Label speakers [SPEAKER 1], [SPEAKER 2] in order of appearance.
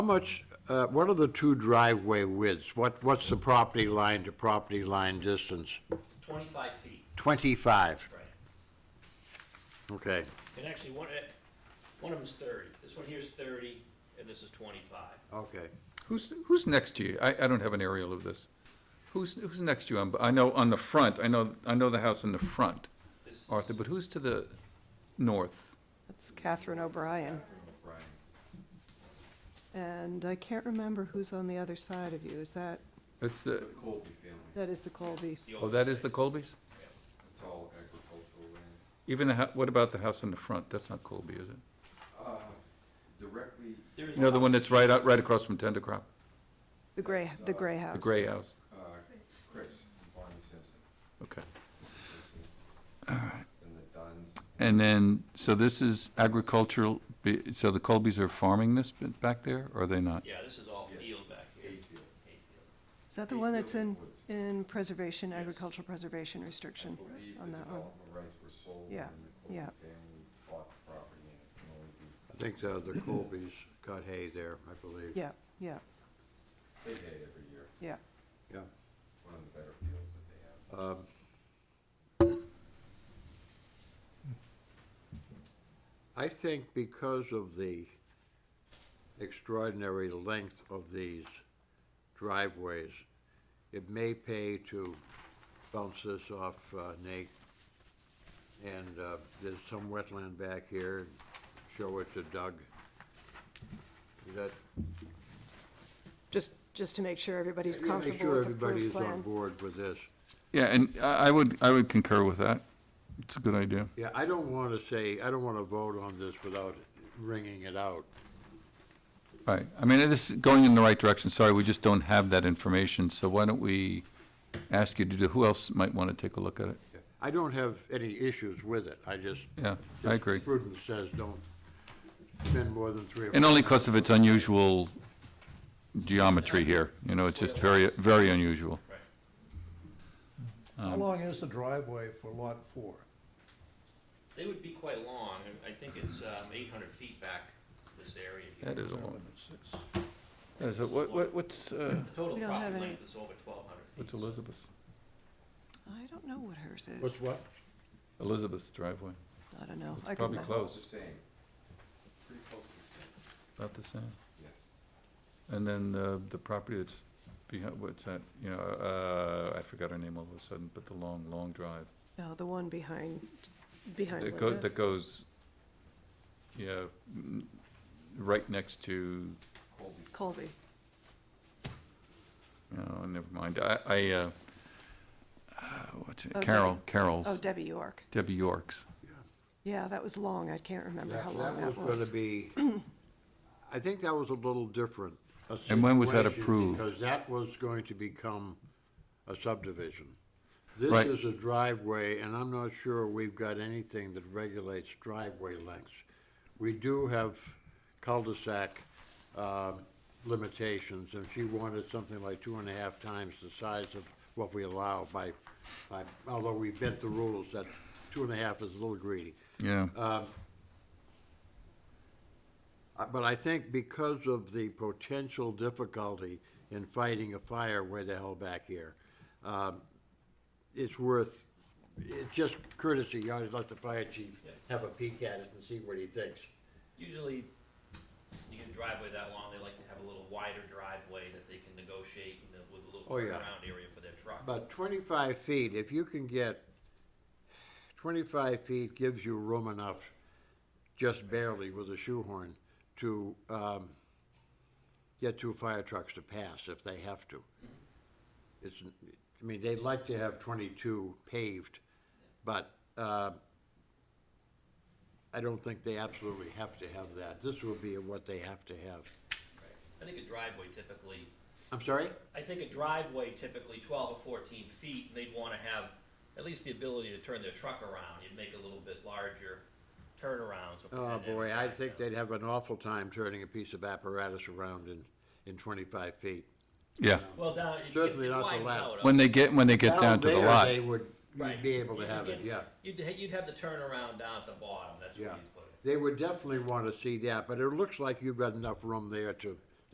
[SPEAKER 1] How much, uh, what are the two driveway widths? What, what's the property line to property line distance?
[SPEAKER 2] 25 feet,
[SPEAKER 1] 25,
[SPEAKER 2] right.
[SPEAKER 1] okay.
[SPEAKER 2] And actually, one, eh, one of them's 30. This one here's 30, and this is 25.
[SPEAKER 1] Okay.
[SPEAKER 3] Who's, who's next to you? I, I don't have an aerial of this. Who's, who's next to you? on- I know on the front, I know, I know the house in the front,
[SPEAKER 2] This
[SPEAKER 3] Arthur, but who's to the north?
[SPEAKER 4] That's Catherine O'Brien. And I can't remember who's on the other side of you. Is that,
[SPEAKER 3] It's the,
[SPEAKER 5] Colby family,
[SPEAKER 4] that is the Colby?
[SPEAKER 2] the
[SPEAKER 3] oh,
[SPEAKER 2] old-
[SPEAKER 3] that is the Colbys?
[SPEAKER 5] it's all agricultural land.
[SPEAKER 3] Even the, hou- what about the house in the front? That's not Colby, is it?
[SPEAKER 5] Directly,
[SPEAKER 2] there is
[SPEAKER 3] You know, the
[SPEAKER 2] one-
[SPEAKER 3] one that's right out, right across from Tender Crop,
[SPEAKER 4] The gray, the gray house?
[SPEAKER 3] the gray house?
[SPEAKER 5] uh, Chris, Barney Simpson,
[SPEAKER 3] Okay.
[SPEAKER 5] Simpsons. And the Duns,
[SPEAKER 3] And then, so this is agricultural, be- so the Colbys are farming this bit back there, or are they not?
[SPEAKER 2] Yeah, this is all
[SPEAKER 5] Yes.
[SPEAKER 2] field back here.
[SPEAKER 5] Hayfield.
[SPEAKER 2] Hayfield.
[SPEAKER 4] Is that the one that's in,
[SPEAKER 5] Woods.
[SPEAKER 4] in preservation, agricultural preservation restriction
[SPEAKER 5] I believe the
[SPEAKER 4] on that one?
[SPEAKER 5] development rights were sold when
[SPEAKER 4] Yeah,
[SPEAKER 5] the
[SPEAKER 4] yeah.
[SPEAKER 5] Colby family bought the property and it can only
[SPEAKER 1] I
[SPEAKER 5] be,
[SPEAKER 1] think the, the Colbys got hay there, I believe.
[SPEAKER 4] Yeah, yeah,
[SPEAKER 5] they pay it every year,
[SPEAKER 4] yeah.
[SPEAKER 1] Yeah.
[SPEAKER 5] one of the better fields that they have.
[SPEAKER 1] I think because of the extraordinary length of these driveways, it may pay to bounce this off uh, Nate. And uh, there's some wetland back here, show it to Doug. Is that?
[SPEAKER 4] Just, just to make sure everybody's
[SPEAKER 1] Yeah,
[SPEAKER 4] comfortable with the proof
[SPEAKER 1] Make sure everybody is on
[SPEAKER 4] plan.
[SPEAKER 1] board with this.
[SPEAKER 3] Yeah, and I, I would, I would concur with that. It's a good idea.
[SPEAKER 1] Yeah, I don't want to say, I don't want to vote on this without ringing it out.
[SPEAKER 3] Right, I mean, this is going in the right direction, sorry, we just don't have that information, so why don't we ask you to do, who else might want to take a look at it?
[SPEAKER 1] I don't have any issues with it, I just.
[SPEAKER 3] Yeah, I agree.
[SPEAKER 1] Prudence says don't spend more than three. or
[SPEAKER 3] And only because of its unusual geometry here, you know, it's just very, very unusual. um,
[SPEAKER 6] How long is the driveway for lot four?
[SPEAKER 2] They would be quite long. and I think it's um, 800 feet back this area here.
[SPEAKER 3] That is a
[SPEAKER 6] Seven
[SPEAKER 3] long,
[SPEAKER 6] and six.
[SPEAKER 3] is it, Uh, what, what- what's, uh,
[SPEAKER 2] The total
[SPEAKER 4] We don't have
[SPEAKER 2] property
[SPEAKER 4] any-
[SPEAKER 2] length is over 1,200 feet.
[SPEAKER 3] what's
[SPEAKER 2] so-
[SPEAKER 3] Elizabeth's?
[SPEAKER 4] I don't know what hers
[SPEAKER 1] What's
[SPEAKER 4] is.
[SPEAKER 1] what?
[SPEAKER 3] Elizabeth's driveway,
[SPEAKER 4] I don't know. I couldn't
[SPEAKER 3] probably
[SPEAKER 4] remember.
[SPEAKER 5] The
[SPEAKER 3] close,
[SPEAKER 5] same, pretty close to the same,
[SPEAKER 3] about the same.
[SPEAKER 5] yes.
[SPEAKER 3] And then the, the property that's behind, what's that, you know, uh, I forgot her name all of a sudden, but the long, long drive.
[SPEAKER 4] No, the one behind, behind
[SPEAKER 3] That go,
[SPEAKER 4] Linda.
[SPEAKER 3] that goes, yeah, n- right next to,
[SPEAKER 5] Colby,
[SPEAKER 4] Colby.
[SPEAKER 3] oh, never mind, I, I, uh, uh, what's it,
[SPEAKER 4] Oh,
[SPEAKER 3] Carol, Carol's,
[SPEAKER 4] Oh, Debbie York.
[SPEAKER 3] Debbie York's.
[SPEAKER 4] Yeah, that was long. I can't remember how long that
[SPEAKER 1] That was going
[SPEAKER 4] was.
[SPEAKER 1] to be, I think that was a little different. a
[SPEAKER 3] And when was that
[SPEAKER 1] situation,
[SPEAKER 3] approved?
[SPEAKER 1] Because that was going to become a subdivision. This
[SPEAKER 3] Right.
[SPEAKER 1] is a driveway, and I'm not sure we've got anything that regulates driveway lengths. We do have cul-de-sac um, limitations, and she wanted something like two and a half times the size of what we allow by, by, although we bent the rules, that two and a half is a little greedy.
[SPEAKER 3] Yeah,
[SPEAKER 1] Uh, But I think because of the potential difficulty in fighting a fire way the hell back here, um, it's worth, it's just courtesy, you ought to let the fire chief have a peek at it and see what he thinks.
[SPEAKER 2] Usually, you get a driveway that long, they like to have a little wider driveway that they can negotiate and then with a little
[SPEAKER 1] Oh, yeah.
[SPEAKER 2] turnaround area for their truck.
[SPEAKER 1] But twenty-five feet, if you can get, twenty-five feet gives you room enough, just barely with a shoehorn, to, um, get two fire trucks to pass if they have to. It's, I mean, they'd like to have twenty-two paved, but, uh, I don't think they absolutely have to have that. This will be what they have to have.
[SPEAKER 2] I think a driveway typically,
[SPEAKER 1] I'm sorry?
[SPEAKER 2] I think a driveway typically twelve or fourteen feet, and they'd wanna have at least the ability to turn their truck around, you'd make a little bit larger turnaround. so-
[SPEAKER 1] Oh,
[SPEAKER 2] and- and-
[SPEAKER 1] boy, I think they'd have an awful time turning a piece of apparatus around in, in twenty-five feet.
[SPEAKER 3] yeah,
[SPEAKER 2] Well, down, it- it
[SPEAKER 1] Certainly not the
[SPEAKER 2] widens
[SPEAKER 1] lap.
[SPEAKER 2] out.
[SPEAKER 3] when they get, when they get down to the
[SPEAKER 1] Down there,
[SPEAKER 3] lot.
[SPEAKER 1] They would
[SPEAKER 2] Right.
[SPEAKER 1] be able to
[SPEAKER 2] You'd
[SPEAKER 1] have it,
[SPEAKER 2] get-
[SPEAKER 1] yeah,
[SPEAKER 2] You'd, ha- you'd have the turnaround down at the bottom, that's where
[SPEAKER 1] yeah.
[SPEAKER 2] you'd put it.
[SPEAKER 1] They would definitely want to see that, but it looks like you've got enough room there to